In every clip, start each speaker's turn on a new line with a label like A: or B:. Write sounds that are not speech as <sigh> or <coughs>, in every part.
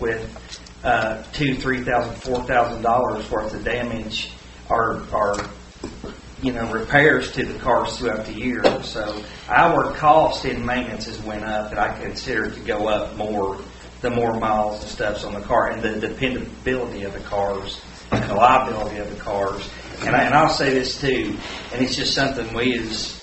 A: with uh, two, three thousand, four thousand dollars worth of damage or, or, you know, repairs to the cars throughout the year. So our cost in maintenance has went up, and I consider it to go up more, the more miles and stuffs on the car, and the dependability of the cars, and the liability of the cars. And I, and I'll say this too, and it's just something we as,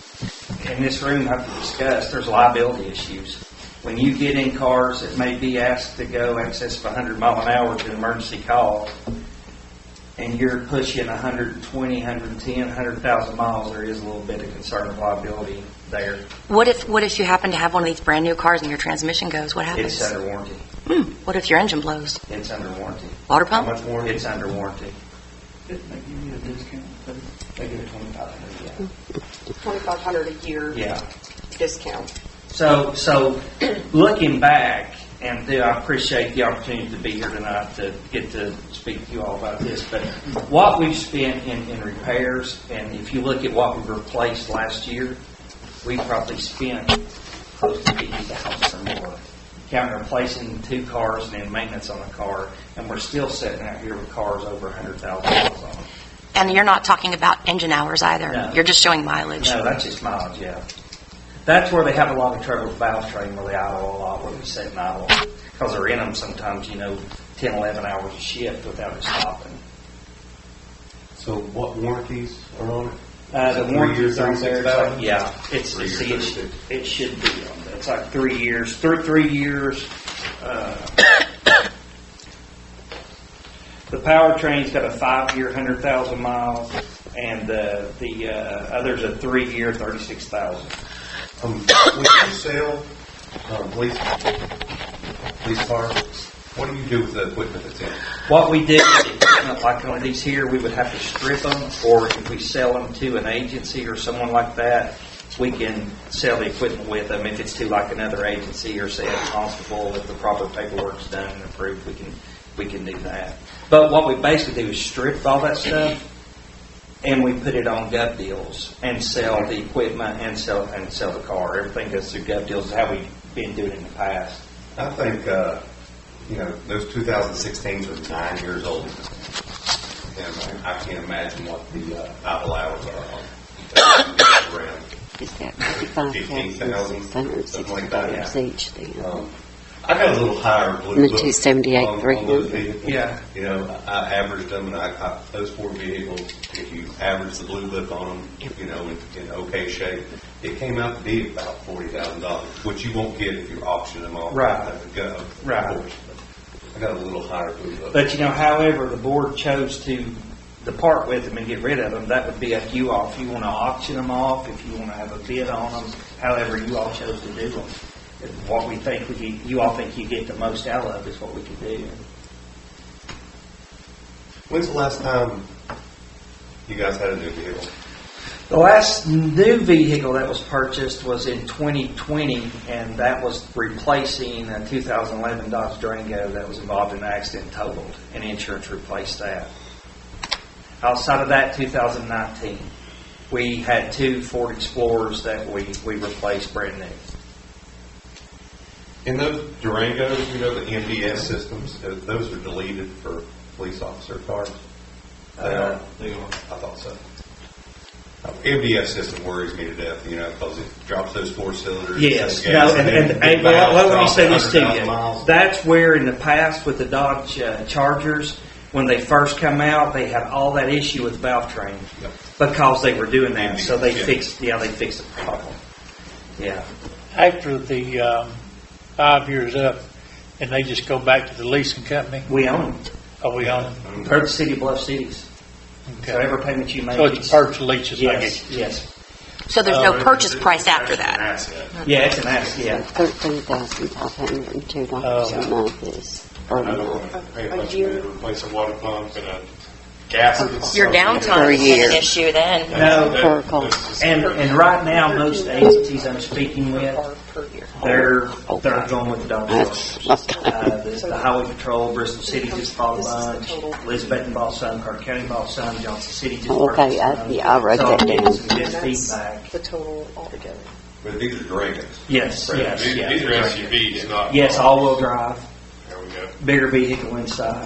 A: in this room have to discuss, there's liability issues. When you get in cars that may be asked to go excess of 100 mile an hour to an emergency call, and you're pushing 120, 110, 100,000 miles, there is a little bit of concern of liability there.
B: What if, what if you happen to have one of these brand-new cars and your transmission goes? What
A: It's uh,
B: happens? Hmm,
A: under warranty.
B: What if your engine blows?
A: It's under warranty.
B: Water
C: How
B: pump?
C: much more?
A: It's under warranty.
C: Didn't they give you a discount? They give twenty-five hundred,
D: 2,500 a year
A: Yeah.
D: discount.
A: So, so looking back, and Theo, I appreciate the opportunity to be here tonight to get to speak to you all about this, but what we've spent in, in repairs, and if you look at what we replaced last year, we probably spent close to fifty thousand or more. Counting replacing two cars and then maintenance on a car, and we're still sitting out here with cars over a hundred thousand miles on them.
B: And you're not talking about engine hours either.
A: No.
B: You're just showing mileage.
A: No, that's just mileage, yeah. That's where they have a lot of trouble with valve train, where they idle a lot, where they sit and idle. Because they're in them sometimes, you know, 10, 11 hours a shift without it stopping.
E: So what warranties are on it?
A: Uh, the
E: Three
A: warranties
E: years,
A: on there, it's
E: 36,000?
A: like, yeah, it's,
E: Three years,
A: see, it should,
E: 36.
A: it should be on there. It's like three years, three, three years. uh, <coughs> The powertrain's got a five-year, 100,000 miles, and the, the uh, other's a three-year, 36,000.
E: Um, when you sell, um, police, police car, what do you do with the equipment that's in it?
A: What we did, <coughs> like on these here, we would have to strip them, or if we sell them to an agency or someone like that, we can sell the equipment with them if it's to like another agency or say a constable, if the proper paperwork's done and approved, we can, we can do that. But what we basically do is strip all that stuff, and we put it on gov deals and sell the equipment and sell, and sell the car. Everything goes through gov deals, is how we've been doing it in the past.
E: I think, uh, you know, those 2016s are nine years old. And I I can't imagine what the uh, idle hours are on. it. Around
F: Is that fifty-five thousand, six hundred and sixty dollars each then?
E: Um, I got a little higher blue
F: The
E: book.
F: 278,
E: on- on
F: 300.
E: those vehicles.
A: Yeah.
E: You know, I I averaged them, and I, I, those four vehicles, if you average the blue book on them, you know, in, in okay shape, it came out to be about forty thousand dollars, which you won't get if you auction them off.
A: Right.
E: at the Go. of
A: Right.
E: course. I got a little higher blue book.
A: But you know, however, the board chose to depart with them and get rid of them, that would be up to you all. If you want to auction them off, if you want to have a bid on them, however you all chose to do them. What we think we, get- you all think you get the most out of is what we could do.
E: When's the last time you guys had a new vehicle?
A: The last new vehicle that was purchased was in 2020, and that was replacing a 2011 Dodge Durango that was involved in an accident and totaled, and insurance replaced that. Outside of that, 2019, we had two Ford Explorers that we, we replaced brand new.
E: In those Durangos, you know, the MDS systems, tho- those are deleted for police officer cars. They are.
C: They are.
E: I thought so. MDS system worries me to death, you know, because it drops those four cylinders.
A: Yes,
E: the gas,
A: no, and,
E: then
A: and,
E: the
A: and, well,
E: valves
A: let me
E: drop
A: say this to
E: 100,000
A: you.
E: miles.
A: That's where in the past with the Dodge uh, Chargers, when they first come out, they had all that issue with valve train.
E: Yep.
A: because they were doing that, so they
E: Yeah.
A: fixed, yeah, they fixed the problem. Yeah,
G: after the um, five years up, and they just go back to the leasing company?
A: we own
G: Are we on?
A: them, per the City of Bluff Cities, so
G: Okay.
A: every payment you make.
G: So it's a purchase lease, I
A: Yes,
G: guess.
A: yes,
B: So there's
G: Oh,
B: no
G: it-
B: purchase price after that.
A: yeah, it's an ass, yeah,
F: Thirteen thousand five hundred and two dollars a month is, or a month,
D: A year.
E: Replace a water pump and a gas.
B: Your
F: Per
B: downtime is
F: year.
B: an issue then.
A: no,
F: per call.
A: and, and right now, most agencies I'm speaking with,
D: Or per year.
A: they're, they're going with the dog
F: That's-
A: chargers. Uh, the the Highway Patrol, Bristol City just bought a
D: This is the
A: bunch,
D: total.
A: Elizabeth bought some, Clark County bought some, Johnson City just
F: Oh, Okay,
A: purchased
F: I-
A: some.
F: yeah, I wrote
A: So
F: that
A: I'm getting
F: down.
A: some good
D: And that's
A: feedback.
D: the total altogether.
E: But these are Durangos.
A: Yes, yes,
H: These
A: yeah.
H: these are SUVs, not.
A: Yes, all-wheel drive.
H: There we go.
A: bigger vehicle inside.